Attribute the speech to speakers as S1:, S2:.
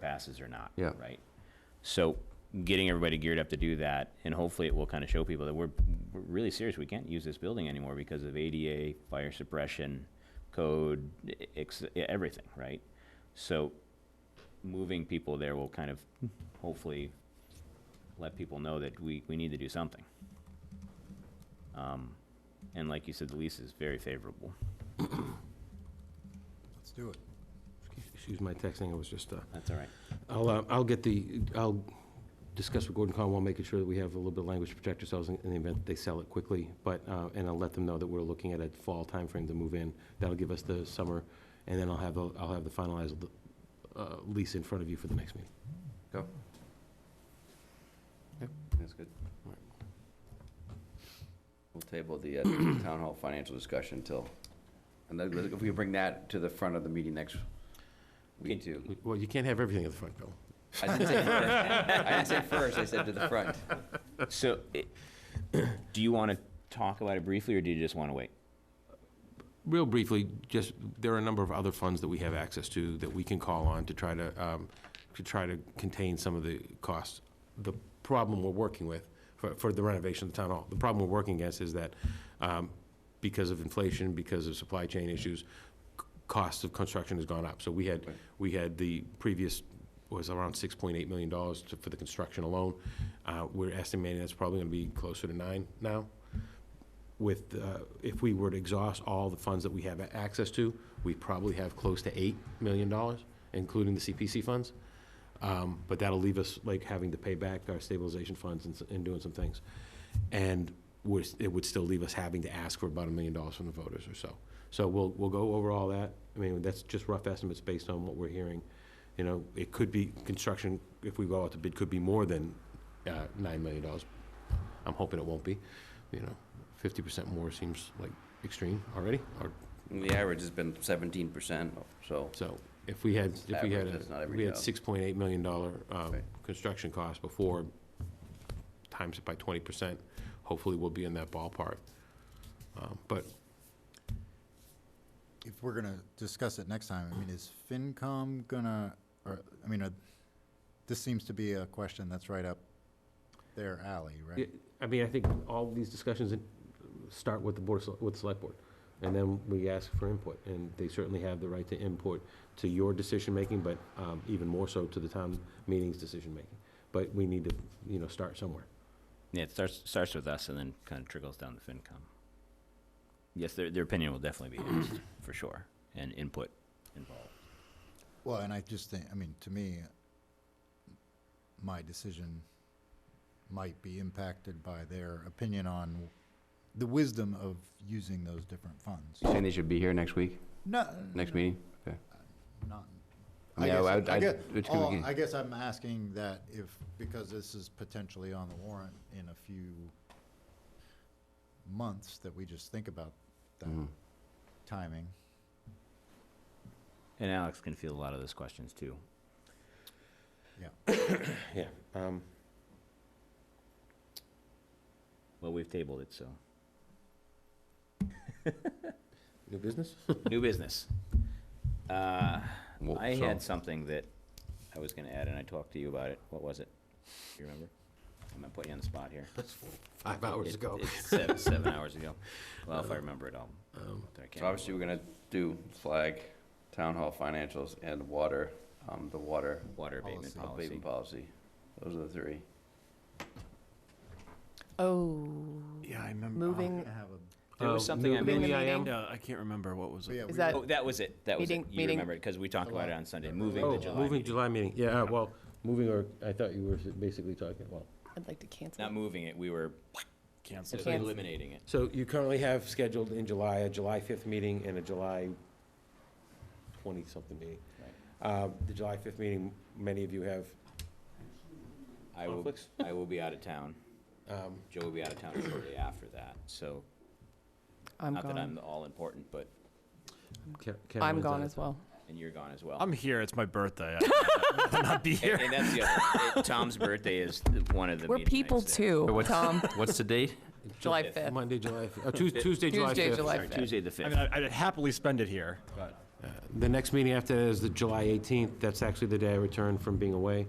S1: passes or not.
S2: Yeah.
S1: Right? So getting everybody geared up to do that, and hopefully it will kind of show people that we're, we're really serious. We can't use this building anymore because of ADA, fire suppression, code, ex- everything, right? So moving people there will kind of hopefully let people know that we, we need to do something. Um, and like you said, the lease is very favorable.
S3: Let's do it.
S2: Excuse my texting, it was just, uh,
S1: That's all right.
S2: I'll, uh, I'll get the, I'll discuss with Gordon Conwell, making sure that we have a little bit of language to protect ourselves in in the event they sell it quickly, but, uh, and I'll let them know that we're looking at a fall timeframe to move in. That'll give us the summer, and then I'll have, the- I'll have the finalized uh, lease in front of you for the next meeting.
S4: That's good. We'll table the uh, town hall financial discussion till, and then if we bring that to the front of the meeting next week too.
S2: Well, you can't have everything at the front, Bill.
S4: I didn't say first, I didn't say first, I said to the front.
S1: So, it- do you want to talk about it briefly, or do you just want to wait?
S2: Real briefly, just, there are a number of other funds that we have access to that we can call on to try to, um, to try to contain some of the costs. The problem we're working with for, for the renovation of the town hall, the problem we're working against is that, um, because of inflation, because of supply chain issues, c- cost of construction has gone up. So we had,
S4: Right.
S2: we had the previous, was around six point eight million dollars for the construction alone. Uh, we're estimating that's probably gonna be closer to nine now with, uh, if we were to exhaust all the funds that we have access to, we probably have close to $8 million, including the CPC funds. Um, But that'll leave us like having to pay back our stabilization funds and s- and doing some things. And we're s- it would still leave us having to ask for about a million dollars from the voters or so. So we'll, we'll go over all that. I mean, that's just rough estimates based on what we're hearing. You know, it could be, construction, if we go out to bid, could be more than uh, $9 million. I'm hoping it won't be, you know fifty percent more seems like extreme already, or,
S4: The average has been seventeen percent, so,
S2: so, if we had, if we had,
S4: Average, that's not
S2: a
S4: every
S2: we had
S4: job.
S2: six point eight million dollar, um,
S4: Right.
S2: construction cost before, times it by twenty percent, hopefully we'll be in that ballpark. Um, But,
S3: If we're gonna discuss it next time, I mean, is FinCom gonna, or, I mean, uh, this seems to be a question that's right up their alley, right?
S2: I mean, I think all these discussions start with the board, of Sele- with the select board, and then we ask for input, and they certainly have the right to input to your decision-making, but, um, even more so to the town meeting's decision-making. But we need to, you know, start somewhere.
S1: Yeah, it starts, starts with us and then kind of trickles down to FinCom. Yes, their, their opinion will definitely be asked, for sure, and input involved.
S3: Well, and I just think, I mean, to me, my decision might be impacted by their opinion on the wisdom of using those different funds.
S4: you saying they should be here next week,
S3: No.
S4: next meeting?
S3: Not.
S4: I mean, I would- I'd- it's gonna
S3: oh,
S4: be-
S3: I guess I'm asking that if, because this is potentially on the warrant in a few months, that we just think about that
S4: Mhm.
S3: timing.
S1: And Alex can field a lot of those questions, too.
S2: Yeah. Um,
S1: Well, we've tabled it, so.
S2: New business?
S1: New business. Uh,
S4: Well,
S1: I
S4: so-
S1: had something that I was gonna add, and I talked to you about it. What was it? Do you remember? I'm gonna put you on the spot here.
S2: Five hours
S1: It-
S2: ago.
S1: It's seven, seven hours ago. Well, if I remember it, I'll.
S2: Um,
S1: I can't
S4: So obviously, we're gonna do flag, town hall financials, and water, um, the water
S1: remember. Water abatement
S3: Policy.
S1: policy.
S4: abatement policy. Those are the three.
S5: Oh,
S6: Yeah, I remember.
S3: We're
S5: moving
S3: gonna have a
S1: There was
S2: Um,
S1: something I
S5: moving the
S2: Moving the
S5: meeting.
S2: IM?
S6: Yeah, I can't remember what was
S3: But yeah,
S6: it.
S3: we
S5: that-
S3: were-
S1: Oh, that was it. That was it.
S5: Meeting-
S1: You
S5: meeting-
S1: remember it, because we talked about it on Sunday, moving the
S2: Oh,
S1: July
S2: moving
S1: meeting.
S2: July meeting, yeah, uh, well, moving or, I thought you were basically talking, well.
S5: I'd like to cancel.
S1: Not moving it, we were
S6: Cancel.
S1: sort of
S5: Cancel.
S1: eliminating it.
S2: So you currently have scheduled in July, a July fifth meeting and a July twenty-something meeting. Uh, the July fifth meeting, many of you have
S1: I will,
S2: conflicts.
S1: I will be out of town.
S2: Um,
S1: Joe will be out of town shortly after that, so
S5: I'm
S1: not that I'm
S5: gone.
S1: the all important, but,
S5: I'm gone as well.
S1: and you're gone as well.
S6: I'm here. It's my birthday. I will not be
S1: And
S6: here.
S1: and that's the other, it- Tom's birthday is the- one of the
S5: We're
S1: meeting
S5: people
S1: nights there.
S5: too, Tom.
S4: What's the date?
S5: July
S1: fifth.
S5: 5th.
S2: Monday, July, fifth. uh, Oh, Tues- Tuesday, July fifth.
S5: Tuesday, July
S1: Sorry,
S5: 5th.
S1: Tuesday the
S6: I mean,
S1: fifth.
S6: I- I'd happily spend it here, but
S2: The next meeting after that is the July 18th. That's actually the day I return from being away.